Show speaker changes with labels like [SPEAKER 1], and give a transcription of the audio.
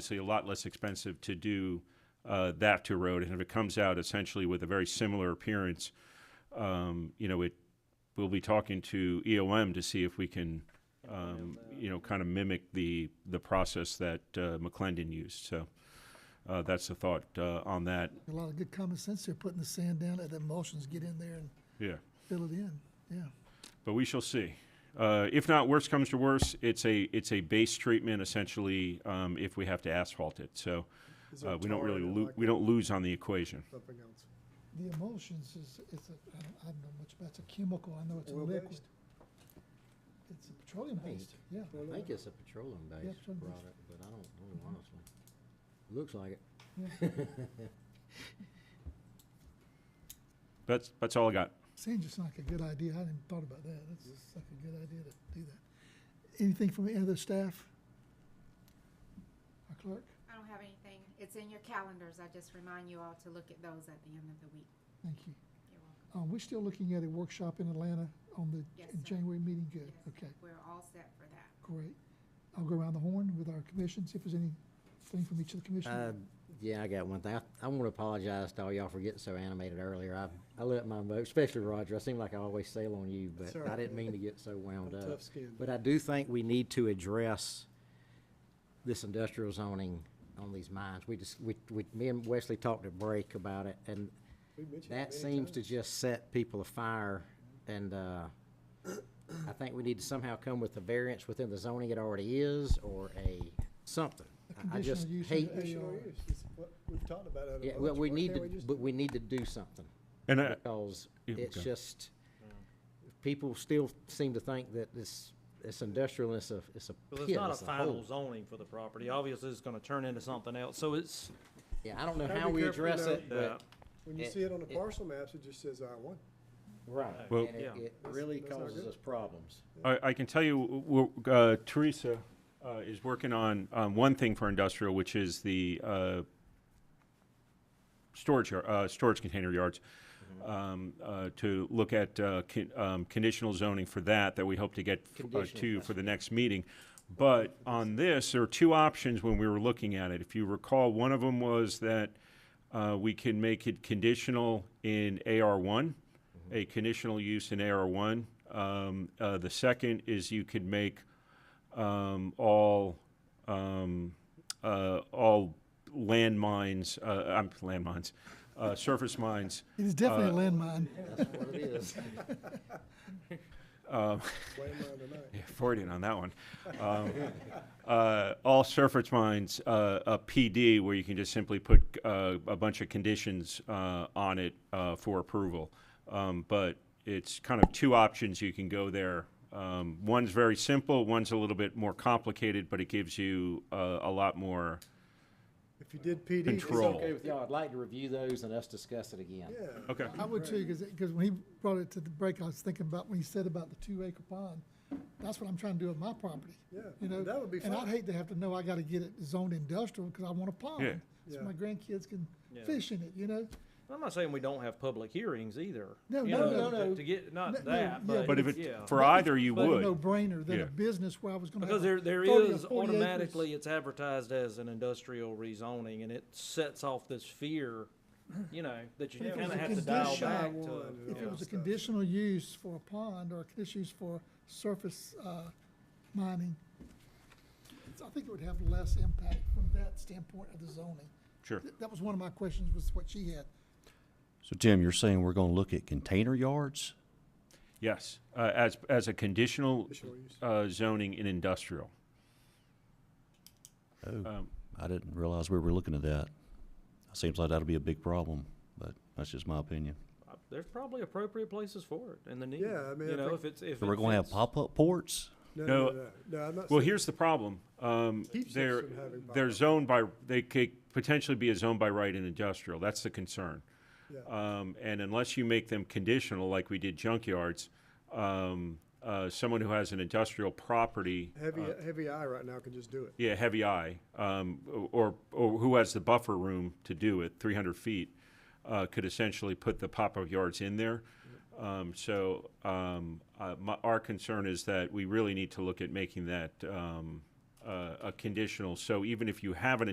[SPEAKER 1] obviously a lot less expensive to do uh, that to road. And if it comes out essentially with a very similar appearance, um, you know, it, we'll be talking to EOM to see if we can, um, you know, kind of mimic the, the process that uh, McClendon used. So uh, that's the thought uh, on that.
[SPEAKER 2] A lot of good common sense there, putting the sand down, let the emulsions get in there and
[SPEAKER 1] Yeah.
[SPEAKER 2] fill it in, yeah.
[SPEAKER 1] but we shall see. Uh, if not, worse comes to worse, it's a it's a base treatment essentially. Um, if we have to asphalt it, so
[SPEAKER 3] Is there
[SPEAKER 1] uh, we don't
[SPEAKER 3] tar
[SPEAKER 1] really
[SPEAKER 3] in it
[SPEAKER 1] lo-
[SPEAKER 3] like
[SPEAKER 1] we don't lose on the equation.
[SPEAKER 3] Something else.
[SPEAKER 2] The emulsions is, it's a, I don't, I don't know much about, it's a chemical, I know it's a liquid.
[SPEAKER 3] Oil-based?
[SPEAKER 2] It's a petroleum based, yeah.
[SPEAKER 3] Well,
[SPEAKER 4] I think it's a petroleum
[SPEAKER 2] Yeah,
[SPEAKER 4] based
[SPEAKER 2] petroleum-based.
[SPEAKER 4] product, but I don't know honestly. Looks like it.
[SPEAKER 1] That's that's all I got.
[SPEAKER 2] Sand just like a good idea, I hadn't thought about that, that's just like a good idea to do that. Anything from the other staff? Our clerk,
[SPEAKER 5] I don't have anything. It's in your calendars. I just remind you all to look at those at the end of the week.
[SPEAKER 2] thank you.
[SPEAKER 5] You're welcome.
[SPEAKER 2] Uh, we're still looking at a workshop in Atlanta on the
[SPEAKER 5] Yes,
[SPEAKER 2] in
[SPEAKER 5] sir.
[SPEAKER 2] January meeting, good,
[SPEAKER 5] Yes.
[SPEAKER 2] okay.
[SPEAKER 5] We're all set for that.
[SPEAKER 2] Great. I'll go around the horn with our commissions, if there's anything from each of the
[SPEAKER 4] Uh,
[SPEAKER 2] commissioners.
[SPEAKER 4] yeah, I got one thing. I, I want to apologize to all y'all for getting so animated earlier. I, I let my mo especially Roger. I seem like I always sail on you, but
[SPEAKER 3] That's all
[SPEAKER 4] I
[SPEAKER 3] right.
[SPEAKER 4] didn't mean to get so wound
[SPEAKER 3] I'm
[SPEAKER 4] up.
[SPEAKER 3] tough-skinned.
[SPEAKER 4] But I do think we need to address this industrial zoning on these mines. We just, we, we, me and Wesley talked at break about it, and
[SPEAKER 3] We mentioned it
[SPEAKER 4] that
[SPEAKER 3] many
[SPEAKER 4] seems to
[SPEAKER 3] times.
[SPEAKER 4] just set people afire, and, uh, I think we need to somehow come with a variance within the zoning it already is, or a something.
[SPEAKER 2] A
[SPEAKER 4] I- I just
[SPEAKER 2] conditional use
[SPEAKER 4] hate,
[SPEAKER 2] under
[SPEAKER 3] They sure
[SPEAKER 2] AR.
[SPEAKER 3] is. It's what We've talked about it. a
[SPEAKER 4] yeah,
[SPEAKER 3] bunch.
[SPEAKER 4] well, we
[SPEAKER 3] Why
[SPEAKER 4] need
[SPEAKER 3] can't
[SPEAKER 4] to,
[SPEAKER 3] just-
[SPEAKER 4] but we need to do something
[SPEAKER 1] And I,
[SPEAKER 4] because
[SPEAKER 1] Yeah,
[SPEAKER 4] it's
[SPEAKER 1] okay.
[SPEAKER 4] just, people still seem to think that this, it's industrial, and it's a, it's a
[SPEAKER 6] Well, it's
[SPEAKER 4] pit,
[SPEAKER 6] not a
[SPEAKER 4] it's a
[SPEAKER 6] final
[SPEAKER 4] hole.
[SPEAKER 6] zoning for the property. Obviously, it's gonna turn into something else, so it's,
[SPEAKER 4] Yeah, I don't know
[SPEAKER 3] Gotta
[SPEAKER 4] how
[SPEAKER 3] be
[SPEAKER 4] we
[SPEAKER 3] careful, you
[SPEAKER 4] address
[SPEAKER 3] know.
[SPEAKER 4] it, but,
[SPEAKER 3] When you
[SPEAKER 4] it-
[SPEAKER 3] see it on the
[SPEAKER 4] it-
[SPEAKER 3] parcel maps, it just says I one.
[SPEAKER 4] right,
[SPEAKER 1] Well-
[SPEAKER 4] and it,
[SPEAKER 6] Yeah.
[SPEAKER 4] it
[SPEAKER 3] That's-
[SPEAKER 4] really
[SPEAKER 3] that's not
[SPEAKER 4] causes
[SPEAKER 3] good.
[SPEAKER 4] us problems.
[SPEAKER 1] I, I can tell you, w- w- uh, Teresa uh, is working on um, one thing for industrial, which is the uh, storage yar- uh, storage container yards. Um, uh, to look at uh, con- um, conditional zoning for that, that we hope to get f- uh,
[SPEAKER 4] Conditional,
[SPEAKER 1] to
[SPEAKER 4] that's
[SPEAKER 1] for the next meeting. But on this, there are two options when we were looking at it. If you recall, one of them was that uh, we can make it conditional in AR1, a conditional use in AR1. Um, uh, the second is you could make um, all um, uh, all landmines, uh, um, landmines, uh, surface mines.
[SPEAKER 2] It is definitely
[SPEAKER 3] uh,
[SPEAKER 2] a landmine.
[SPEAKER 4] That's what it is.
[SPEAKER 3] Way mine tonight.
[SPEAKER 1] Yeah, Freudian on that one. Um, uh, all surface mines, uh, a PD where you can just simply put uh, a bunch of conditions uh, on it uh, for approval. Um, but it's kind of two options you can go there. Um, one's very simple, one's a little bit more complicated, but it gives you uh, a lot more.
[SPEAKER 3] If you did PD. it's
[SPEAKER 1] Control.
[SPEAKER 4] Okay with y'all, I'd like to review those and us discuss it again.
[SPEAKER 3] Yeah.
[SPEAKER 1] Okay.
[SPEAKER 2] I would too, because, when he brought it to the break, I was thinking about when he said about the two acre pond. That's what I'm trying to do with my property.
[SPEAKER 3] Yeah,
[SPEAKER 2] You know,
[SPEAKER 3] that would be
[SPEAKER 2] And I'd
[SPEAKER 3] fine.
[SPEAKER 2] hate to have to know I gotta get it zoned industrial, because I want a
[SPEAKER 1] Yeah.
[SPEAKER 2] pond. So
[SPEAKER 3] Yeah.
[SPEAKER 2] my grandkids can
[SPEAKER 6] Yeah.
[SPEAKER 2] fish in it, you know?
[SPEAKER 6] I'm not saying we don't have public hearings either.
[SPEAKER 2] No,
[SPEAKER 6] you
[SPEAKER 2] no, no,
[SPEAKER 6] know, to-
[SPEAKER 2] no.
[SPEAKER 6] To get,
[SPEAKER 2] No,
[SPEAKER 6] not
[SPEAKER 2] no,
[SPEAKER 6] that,
[SPEAKER 2] yeah,
[SPEAKER 6] but.
[SPEAKER 1] But if it,
[SPEAKER 6] yeah.
[SPEAKER 1] for either, you
[SPEAKER 2] But a
[SPEAKER 1] would.
[SPEAKER 2] No brainer than
[SPEAKER 1] Yeah.
[SPEAKER 2] a business where I was gonna have.
[SPEAKER 6] Because
[SPEAKER 2] a
[SPEAKER 6] there, there
[SPEAKER 2] 30 or
[SPEAKER 6] is
[SPEAKER 2] 40 acres.
[SPEAKER 6] automatically, it's advertised as an industrial rezoning, and it sets off this fear, you know, that you
[SPEAKER 2] But if it
[SPEAKER 6] kinda
[SPEAKER 2] was a
[SPEAKER 6] have to dial
[SPEAKER 2] condition-
[SPEAKER 6] back
[SPEAKER 3] Shy one.
[SPEAKER 6] to.
[SPEAKER 2] If
[SPEAKER 6] yeah.
[SPEAKER 2] it was a
[SPEAKER 3] stuff.
[SPEAKER 2] conditional use for a pond or a conditional use for surface uh, mining, it's- I think it would have less impact from that standpoint of the zoning.
[SPEAKER 1] Sure.
[SPEAKER 2] Th- That was one of my questions, was what she had.
[SPEAKER 7] So Tim, you're saying we're gonna look at container yards?
[SPEAKER 1] Yes. Uh, as, as a conditional
[SPEAKER 3] Conditional use.
[SPEAKER 1] uh, zoning in industrial.
[SPEAKER 7] Oh,
[SPEAKER 1] Um,
[SPEAKER 7] I didn't realize we were looking at that. Seems like that'll be a big problem, but that's just my opinion.
[SPEAKER 6] Uh, There's probably appropriate places for it and the need.
[SPEAKER 3] Yeah, I mean, I
[SPEAKER 6] You know,
[SPEAKER 3] think-
[SPEAKER 6] if it's, if.
[SPEAKER 7] So we're
[SPEAKER 6] it
[SPEAKER 7] gonna have
[SPEAKER 6] fits-
[SPEAKER 7] pop-up ports?
[SPEAKER 3] No,
[SPEAKER 1] No.
[SPEAKER 3] no, no, no, I'm not.
[SPEAKER 1] Well,
[SPEAKER 3] saying-
[SPEAKER 1] here's the problem. Um,
[SPEAKER 3] Keeps us
[SPEAKER 1] they're,
[SPEAKER 3] from having
[SPEAKER 1] they're
[SPEAKER 3] bylaws.
[SPEAKER 1] zoned by, they could potentially be a zone by right in industrial. That's the concern.
[SPEAKER 3] Yeah.
[SPEAKER 1] Um, and unless you make them conditional, like we did junkyards, um, uh, someone who has an industrial property,
[SPEAKER 3] Heavy, heavy eye right now can just do it.
[SPEAKER 1] yeah, heavy eye, um, or, or who has the buffer room to do it, three hundred feet, uh, could essentially put the pop-up yards in there. Um, so, um, uh, my, our concern is that we really need to look at making that, um, uh, a conditional. So even if you have an